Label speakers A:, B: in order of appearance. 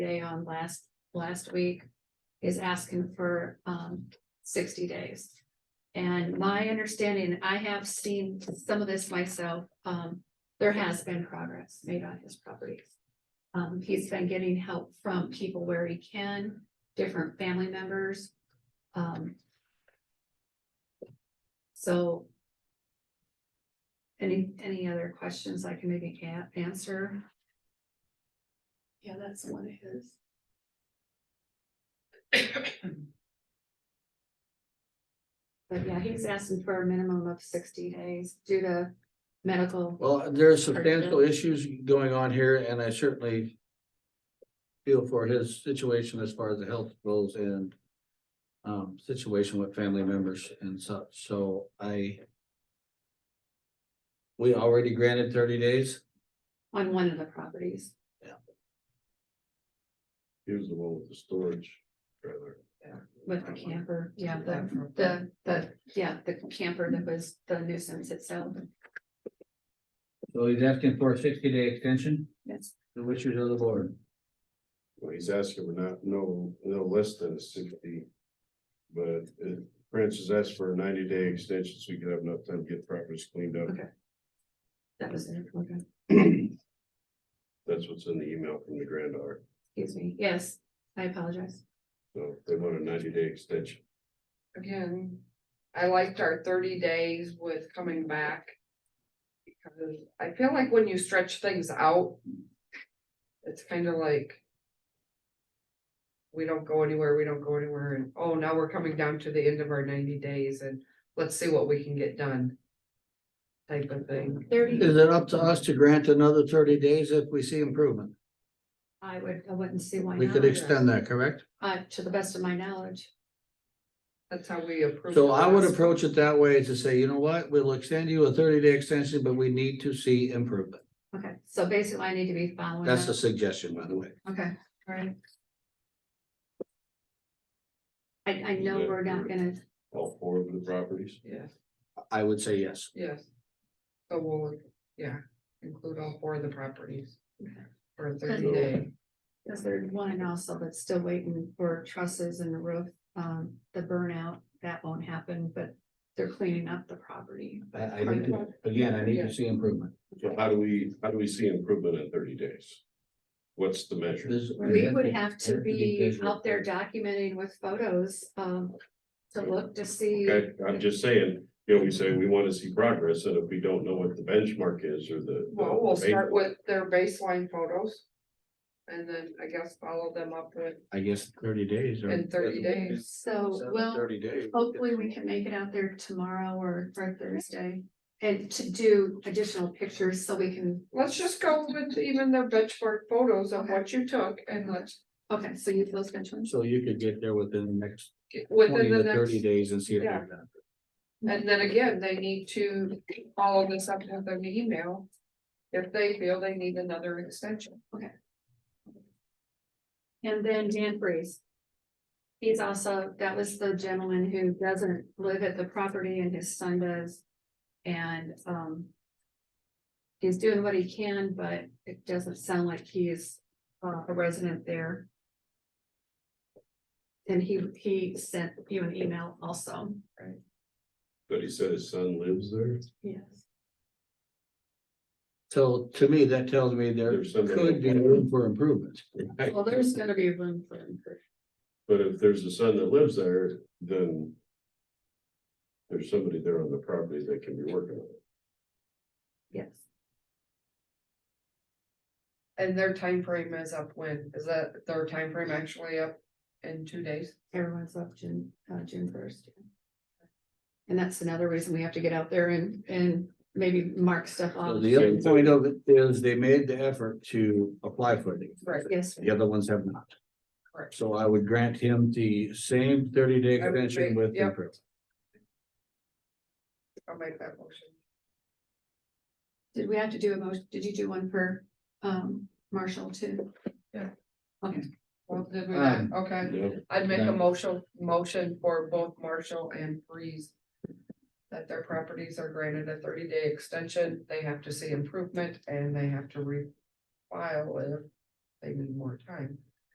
A: day on last, last week is asking for, um, sixty days. And my understanding, I have seen some of this myself, um, there has been progress made on his properties. Um, he's been getting help from people where he can, different family members. Um. So. Any, any other questions I can maybe can answer? Yeah, that's one of his. But yeah, he's asking for a minimum of sixty days due to medical.
B: Well, there are substantial issues going on here and I certainly. Feel for his situation as far as the health goes and. Um, situation with family members and such, so I. We already granted thirty days.
A: on one of the properties.
C: He was the one with the storage trailer.
A: With the camper, yeah, the, the, the, yeah, the camper that was the nuisance itself,
B: So he's asking for a sixty day extension,
A: yes.
B: the wishes of the board.
C: Well, he's asking for not, no, no less than sixty. But uh, Francis asked for a ninety day extension so we could have enough time to get properties cleaned up.
A: Okay. That was, it. Okay.
C: That's what's in the email from the granddaughter.
A: excuse me, yes, I apologize.
C: So they want a ninety day extension.
D: Again, I liked our thirty days with coming back. Because I feel like when you stretch things out. It's kind of like. We don't go anywhere, we don't go anywhere, and oh, now we're coming down to the end of our ninety days and let's see what we can get done. Type of thing.
A: Thirty,
B: Is it up to us to grant another thirty days if we see improvement?
A: I would, I wouldn't see why
B: We could
A: not,
B: extend that, correct?
A: uh, to the best of my knowledge,
D: That's how we approve.
B: So I would
D: the last-
B: approach it that way to say, you know what, we'll extend you a thirty day extension, but we need to see improvement.
A: okay, so basically I need to be following.
B: That's the
A: up.
B: suggestion, by the way.
A: Okay, alright. I, I know we're not gonna,
C: All four of the properties.
D: Yeah,
B: I would say yes.
D: yes. So we'll, yeah, include all four of the properties.
A: Okay.
D: For a thirty day.
A: because there's one and also that's still waiting for trusses and the roof, um, the burnout, that won't happen, but they're cleaning up the property.
B: I, I need to, again, I need to see improvement.
C: So how do we, how do we see improvement in thirty days? What's the measure?
B: This-
A: We would have to
B: be
A: be
B: visual.
A: out there documenting with photos, um, to look to see.
C: Okay, I'm just saying, you know, we say we want to see progress and if we don't know what the benchmark is or the.
D: Well, we'll start with their baseline photos. And then I guess follow them up with
B: I guess thirty days. or-
D: in thirty days.
A: So,
B: Seven,
A: Oh, well,
B: Thirty days.
A: hopefully we can make it out there tomorrow or, or Thursday. And to do additional pictures so we can,
D: Let's just go with even their benchmark photos of what you took and let's
A: okay, so you those mentioned.
B: So you could get there within the next
D: get
B: twenty
D: within the
B: to thirty
D: next.
B: days and see if
D: Yeah.
B: they've done.
D: And then again, they need to follow this up with an email. If they feel they need another extension.
A: And then Dan Freeze. He's also, that was the gentleman who doesn't live at the property and his son does. And, um. He's doing what he can, but it doesn't sound like he is, uh, a resident there. And he, he sent you an email also.
C: But he said his son lives there.
A: Yes.
B: So to me, that tells me there
C: There's somebody-
B: could be room for improvement.
A: Well, there's gonna be room for improvement.
C: But if there's a son that lives there, then. There's somebody there on the property that can be working on it.
A: Yes.
D: And their time frame is up when? Is that their time frame actually up in two days?
A: Everyone's up June, uh, June first. And that's another reason we have to get out there and, and maybe mark stuff
B: So
A: off.
B: the other point of it is they made the effort to apply for it.
D: Right.
A: Yes,
B: The other ones have not.
D: Correct.
B: So I would grant him the same thirty day
D: I would
B: extension
D: agree,
B: with
D: yep.
B: improvement.
D: I'll make that motion.
A: did we have to do a motion, did you do one for, um, Marshall too?
D: Well, did we not?
B: Um,
D: Okay.
C: Yeah.
D: I'd make
B: Yeah.
D: a motion, motion for both Marshall and Breeze. That their properties are granted a thirty day extension, they have to see improvement and they have to refile if they need more time.